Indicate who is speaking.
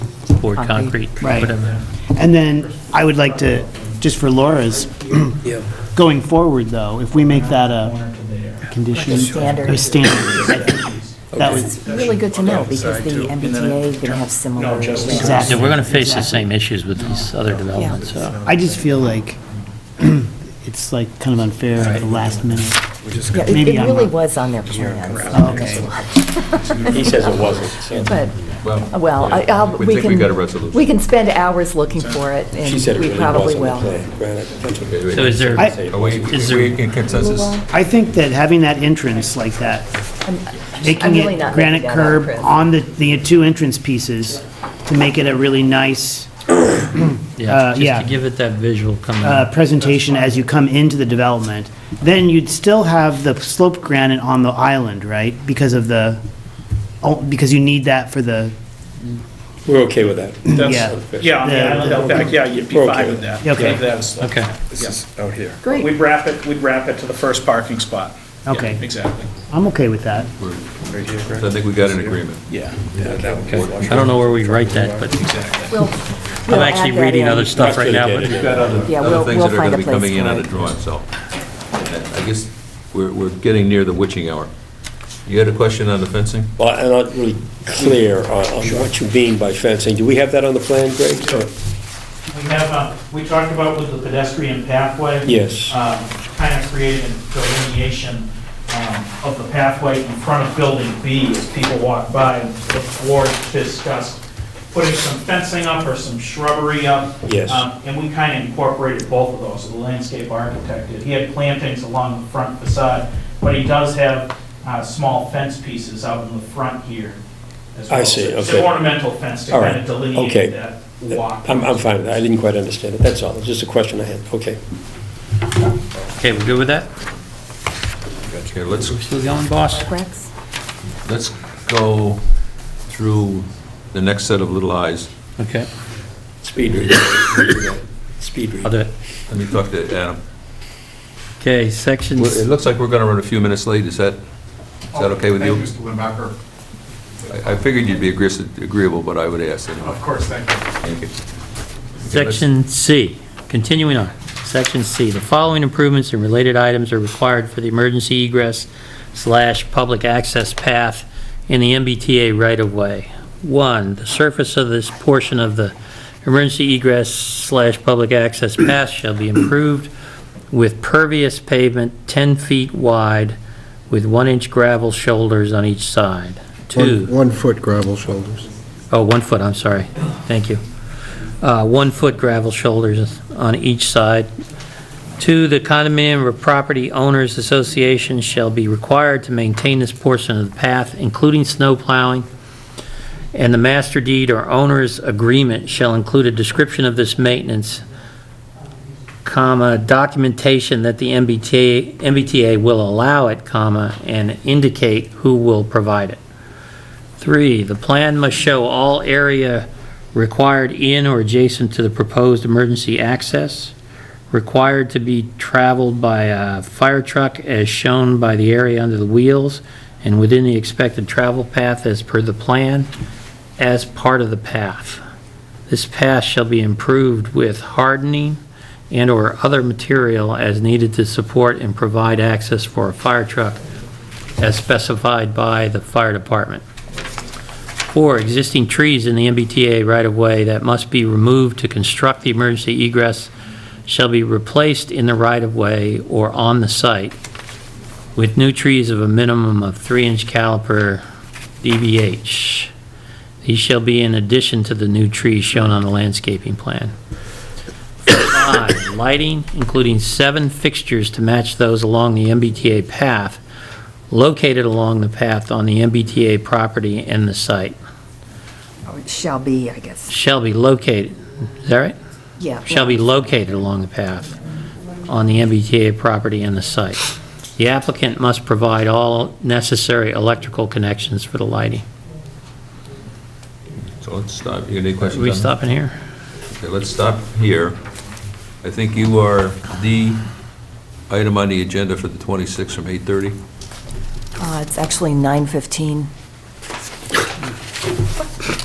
Speaker 1: poured concrete,
Speaker 2: Right.
Speaker 1: whatever.
Speaker 2: And then I would like to, just for Laura's, going forward, though, if we make that a condition.
Speaker 3: standard.
Speaker 2: A standard, I think that would,
Speaker 3: It's really good to know, because the MBTA is going to have similar.
Speaker 2: Exactly.
Speaker 1: Yeah, we're going to face the same issues with these other developments, so.
Speaker 2: I just feel like it's like kind of unfair at the last minute.
Speaker 3: Yeah, it-
Speaker 2: Maybe
Speaker 3: It
Speaker 2: I'm
Speaker 3: really
Speaker 2: wrong.
Speaker 3: was on their plans.
Speaker 4: He says it wasn't.
Speaker 3: But, well, I- I'll,
Speaker 5: We
Speaker 3: we
Speaker 5: think
Speaker 3: can.
Speaker 5: we got a resolution.
Speaker 3: We can spend hours looking for it, and
Speaker 4: She said it
Speaker 3: we
Speaker 4: really
Speaker 3: probably
Speaker 4: was on
Speaker 3: will.
Speaker 4: the plan. Granted.
Speaker 1: So is there,
Speaker 2: I-
Speaker 5: Are we,
Speaker 1: Is
Speaker 5: are we in consensus?
Speaker 2: I think that having that entrance like that, making
Speaker 3: really
Speaker 2: it
Speaker 3: not
Speaker 2: granite
Speaker 3: making that up,
Speaker 2: curb
Speaker 3: Chris.
Speaker 2: on the, the two entrance pieces to make it a really nice
Speaker 1: yeah, just
Speaker 2: uh, yeah.
Speaker 1: to give it that visual coming.
Speaker 2: uh,
Speaker 1: up.
Speaker 2: presentation as you come into the development, then you'd still have the slope granite on the island, right? Because of the, oh, because you need that for the,
Speaker 4: We're okay with that.
Speaker 2: Yeah.
Speaker 6: That's, yeah, on the
Speaker 2: Yeah.
Speaker 6: island out back, yeah, you'd be
Speaker 4: Okay.
Speaker 6: fine with that.
Speaker 2: Okay.
Speaker 6: Leave that as-
Speaker 1: Okay.
Speaker 6: yeah.
Speaker 5: out here.
Speaker 3: Great,
Speaker 6: We'd wrap it, we'd wrap it to the first parking spot. Yeah,
Speaker 2: Okay.
Speaker 6: Exactly,
Speaker 2: I'm okay with that.
Speaker 5: So I think we got an agreement.
Speaker 6: yeah.
Speaker 1: I don't know where we write that, but
Speaker 3: we'll.
Speaker 1: I'm actually reading other stuff right now, but
Speaker 3: Yeah,
Speaker 5: Other
Speaker 3: we'll,
Speaker 5: things
Speaker 3: we'll
Speaker 5: that are
Speaker 3: find
Speaker 5: gonna
Speaker 3: a
Speaker 5: be
Speaker 3: place
Speaker 5: coming in
Speaker 3: for
Speaker 5: on a
Speaker 3: it.
Speaker 5: drawing, so. I guess we're, we're getting near the witching hour. You had a question on the fencing?
Speaker 4: Well, I'm not really clear on on what you mean by fencing. Do we have that on the plan, Greg? Or-
Speaker 7: We have, uh, we talked about with the pedestrian pathway. Um,
Speaker 4: Yes.
Speaker 7: Kind of creating delineation um, of the pathway in front of Building B as people walk by. and The board discussed putting some fencing up or some shrubbery up.
Speaker 4: Yes.
Speaker 7: Um, And we kind of incorporated both of those. The landscape architect did. He had plantings along the front facade, but he does have uh, small fence pieces out in the front here as
Speaker 4: I
Speaker 7: well.
Speaker 4: see,
Speaker 7: So it's
Speaker 4: okay.
Speaker 7: Ornamental fence to
Speaker 4: All
Speaker 7: kind
Speaker 4: right,
Speaker 7: of delineate
Speaker 4: okay.
Speaker 7: that walk.
Speaker 4: I'm, I'm fine with that. I didn't quite understand it. That's all. It's just a question I had. Okay.
Speaker 1: okay, we're good with that?
Speaker 5: Okay, let's,
Speaker 1: We're still going, boss?
Speaker 3: Rex?
Speaker 5: let's go through the next set of little eyes.
Speaker 1: Okay,
Speaker 4: Speed read. Speed
Speaker 1: I'll
Speaker 4: read.
Speaker 1: do it.
Speaker 5: Let me talk to Adam.
Speaker 1: Okay, sections.
Speaker 5: Well, It looks like we're gonna run a few minutes late. Is that, is that okay with you?
Speaker 8: Thank you, Mr. Limbacher.
Speaker 5: I I figured you'd be agreeable, agreeable, but I would ask anyway.
Speaker 8: Of course, thank you.
Speaker 5: Thank you.
Speaker 1: Section C, continuing on, section C, the following improvements and related items are required for the emergency egress slash public access path in the MBTA right-of-way. One, the surface of this portion of the emergency egress slash public access path shall be improved with pervious pavement 10 feet wide with one-inch gravel shoulders on each side. Two.
Speaker 9: One-foot gravel shoulders.
Speaker 1: Oh, one foot, I'm sorry. Thank you. Uh, One foot gravel shoulders on each side. Two, the condominium or property owners association shall be required to maintain this portion of the path, including snow plowing, and the master deed or owner's agreement shall include a description of this maintenance, comma, documentation that the MBTA, MBTA will allow it, comma, and indicate who will provide it. Three, the plan must show all area required in or adjacent to the proposed emergency access, required to be traveled by a fire truck as shown by the area under the wheels and within the expected travel path as per the plan, as part of the path. This path shall be improved with hardening and/or other material as needed to support and provide access for a fire truck as specified by the fire department. Four, existing trees in the MBTA right-of-way that must be removed to construct the emergency egress shall be replaced in the right-of-way or on the site with new trees of a minimum of three-inch caliper DBH. These shall be in addition to the new trees shown on the landscaping plan. Five, lighting, including seven fixtures to match those along the MBTA path, located along the path on the MBTA property and the site
Speaker 3: Shall be, I guess,
Speaker 1: shall be located, is that right?
Speaker 3: yeah.
Speaker 1: Shall be located along the path on the MBTA property and the site. The applicant must provide all necessary electrical connections for the lighting.
Speaker 5: So let's stop. You got any
Speaker 1: Are
Speaker 5: questions?
Speaker 1: we
Speaker 5: on that?
Speaker 1: stopping here?
Speaker 5: Okay, let's stop here. I think you are the item on the agenda for the 26th from 8:30.
Speaker 3: Uh, It's actually 9:15.